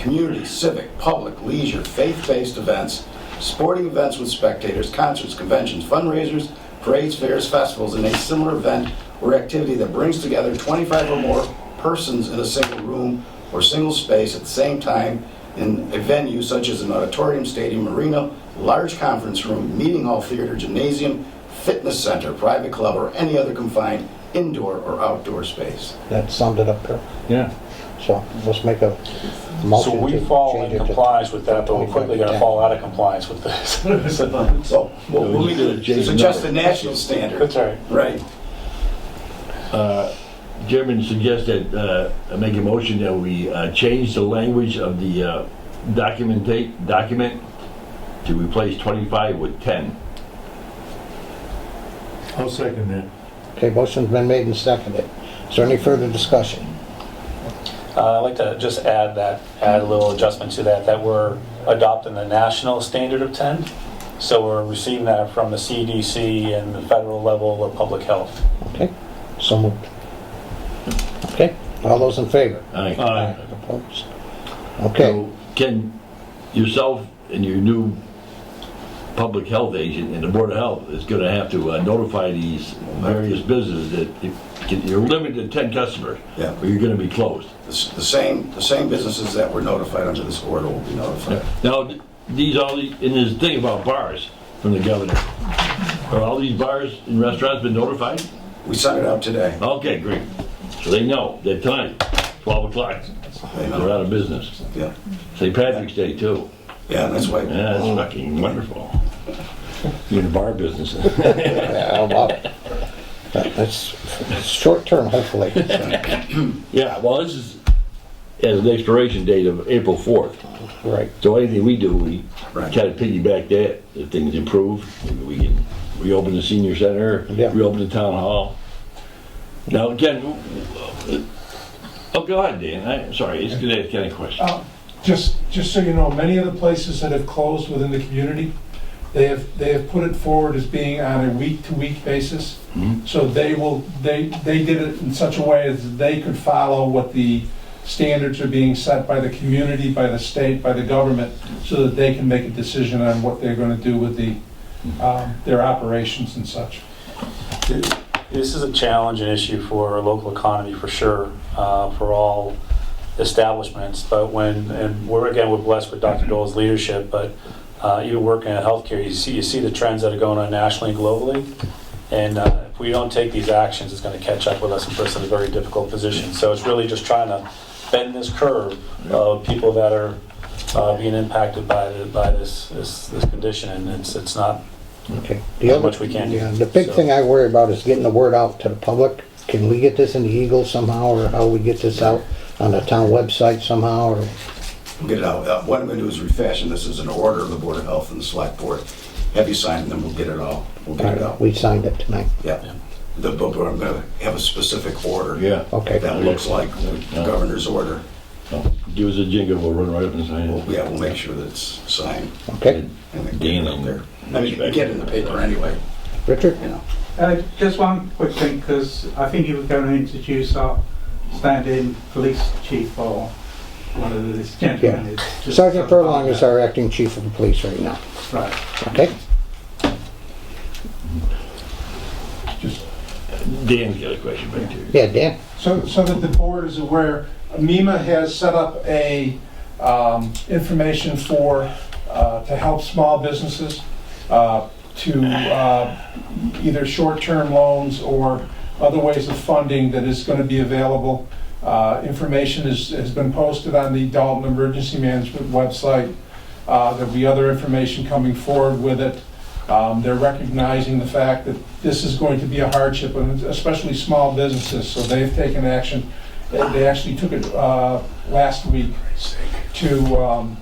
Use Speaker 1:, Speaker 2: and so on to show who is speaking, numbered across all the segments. Speaker 1: community, civic, public, leisure, faith-based events, sporting events with spectators, concerts, conventions, fundraisers, parades, fairs, festivals, and a similar event or activity that brings together 25 or more persons in a single room or single space at the same time in a venue such as an auditorium, stadium, arena, large conference room, meeting hall, theater, gymnasium, fitness center, private club, or any other confined indoor or outdoor space.
Speaker 2: That summed it up there.
Speaker 3: Yeah.
Speaker 2: So let's make a
Speaker 4: So
Speaker 2: motion
Speaker 4: we
Speaker 2: to
Speaker 4: fall
Speaker 2: change
Speaker 4: in
Speaker 2: it to-
Speaker 4: compliance with that, but we're
Speaker 2: 25
Speaker 4: quickly gonna
Speaker 2: to
Speaker 4: fall out of compliance with this. That's
Speaker 1: So, we'll,
Speaker 3: No,
Speaker 1: we'll
Speaker 3: you did a J
Speaker 1: suggest the
Speaker 3: number.
Speaker 1: national standard.
Speaker 4: all right.
Speaker 1: Right.
Speaker 3: Uh, Chairman suggests that, uh, I make a motion that we uh, change the language of the uh, documentate, document to replace 25 with 10.
Speaker 5: I'll second that.
Speaker 2: Okay, motion's been made and seconded. Is there any further discussion?
Speaker 4: Uh, I'd like to just add that, add a little adjustment to that, that we're adopting the national standard of 10. So we're receiving that from the CDC and the federal level of public health.
Speaker 2: Okay, so moved. Okay, all those in favor?
Speaker 3: Aye.
Speaker 2: Opposed? Okay,
Speaker 3: So Ken, yourself and your new public health agent and the Board of Health is going to have to uh, notify these various businesses that if- you're limited to 10 customers,
Speaker 1: Yeah.
Speaker 3: or you're going to be closed.
Speaker 1: The s- the same, the same businesses that were notified under this order will be notified.
Speaker 3: Now, th- these all, the- and this thing about bars from the governor, are all these bars and restaurants been notified?
Speaker 1: We sent it out today.
Speaker 3: Okay, great. So they know that tonight, 12 o'clock,
Speaker 1: They
Speaker 3: they're
Speaker 1: know.
Speaker 3: out of business.
Speaker 1: Yeah,
Speaker 3: St. Patrick's Day too.
Speaker 1: yeah, that's why.
Speaker 3: Yeah, that's fucking wonderful. Oh. You're in the bar business.
Speaker 2: yeah, I love it. uh, That- That's it's short-term, hopefully.
Speaker 3: Yeah, well, this is, has an expiration date of April 4th.
Speaker 2: Right.
Speaker 3: So anything we do, we try
Speaker 1: Right.
Speaker 3: to piggyback that. If things improve, maybe we can reopen the senior center,
Speaker 2: Yeah.
Speaker 3: reopen the town hall. Now, again, oh, go ahead, Dan. I'm sorry, it's gonna ask Ken a question.
Speaker 6: Uh, Just, just so you know, many of the places that have closed within the community, they have, they have put it forward as being on a week-to-week basis.
Speaker 3: Mhm.
Speaker 6: So they will, they, they did it in such a way as they could follow what the standards are being set by the community, by the state, by the government, so that they can make a decision on what they're gonna do with the, um, their operations and such.
Speaker 4: This is a challenge and issue for our local economy for sure, uh, for all establishments. But when, and we're again, we're blessed with Dr. Dole's leadership, but uh, you work in healthcare, you see, you see the trends that are going on nationally and globally. And uh, if we don't take these actions, it's going to catch up with us and put us in a very difficult position. So it's really just trying to bend this curve of people that are uh, being impacted by, the- by this, this this condition. And it's, it's not,
Speaker 2: Okay. The other-
Speaker 4: much we can do.
Speaker 2: yeah, The big
Speaker 4: So-
Speaker 2: thing I worry about is getting the word out to the public. Can we get this in the Eagle somehow, or how we get this out on the town website somehow, or?
Speaker 1: We'll Get it out. Uh, What I'm gonna do is refashion this as an order of the Board of Health and the Select Board. Have you signed, and then we'll get it all, we'll get it out.
Speaker 2: We signed it tonight.
Speaker 1: Yeah. The, but I'm gonna have a specific order.
Speaker 3: Yeah.
Speaker 2: Okay,
Speaker 1: That looks like the governor's order.
Speaker 3: Oh, Give us a jingle, we'll run right up and sign it.
Speaker 1: Yeah, we'll make sure that it's signed.
Speaker 2: okay.
Speaker 1: and then get it out there. I mean, get it in the paper anyway,
Speaker 2: Richard?
Speaker 1: you know.
Speaker 7: Uh, Just one quick thing, because I think you were going to introduce our standing police chief or one of these gentlemen. is just-
Speaker 2: Sergeant Furlong is our acting chief of the police right now,
Speaker 7: Right.
Speaker 2: okay?
Speaker 3: Dan's got a question back there.
Speaker 2: Yeah, Dan?
Speaker 6: So, so that the board is aware, MEMA has set up a, um, information for, uh, to help small businesses, uh, to, uh, either short-term loans or other ways of funding that is gonna be available. Uh, information is, has been posted on the Dalton Emergency Management website. Uh, there'll be other information coming forward with it. Um, They're recognizing the fact that this is going to be a hardship, and especially small businesses, so they've taken action. They they actually took it uh, last week to um,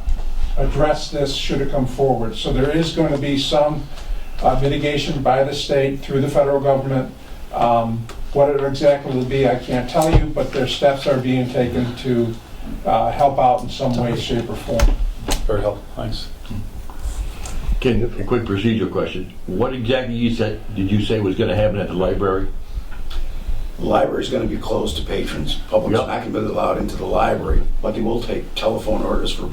Speaker 6: address this, should it come forward. So there is going to be some uh, mitigation by the state through the federal government. Um, What it exactly will be, I can't tell you, but their steps are being taken to uh, help out in some way, shape, or form.
Speaker 4: very helpful, thanks.
Speaker 3: Ken, a quick procedural question. What exactly you said, did you say was gonna happen at the library?
Speaker 1: The Library's gonna be closed to patrons. Public's
Speaker 3: Yep.
Speaker 1: not gonna be allowed into the library, but they will take telephone orders for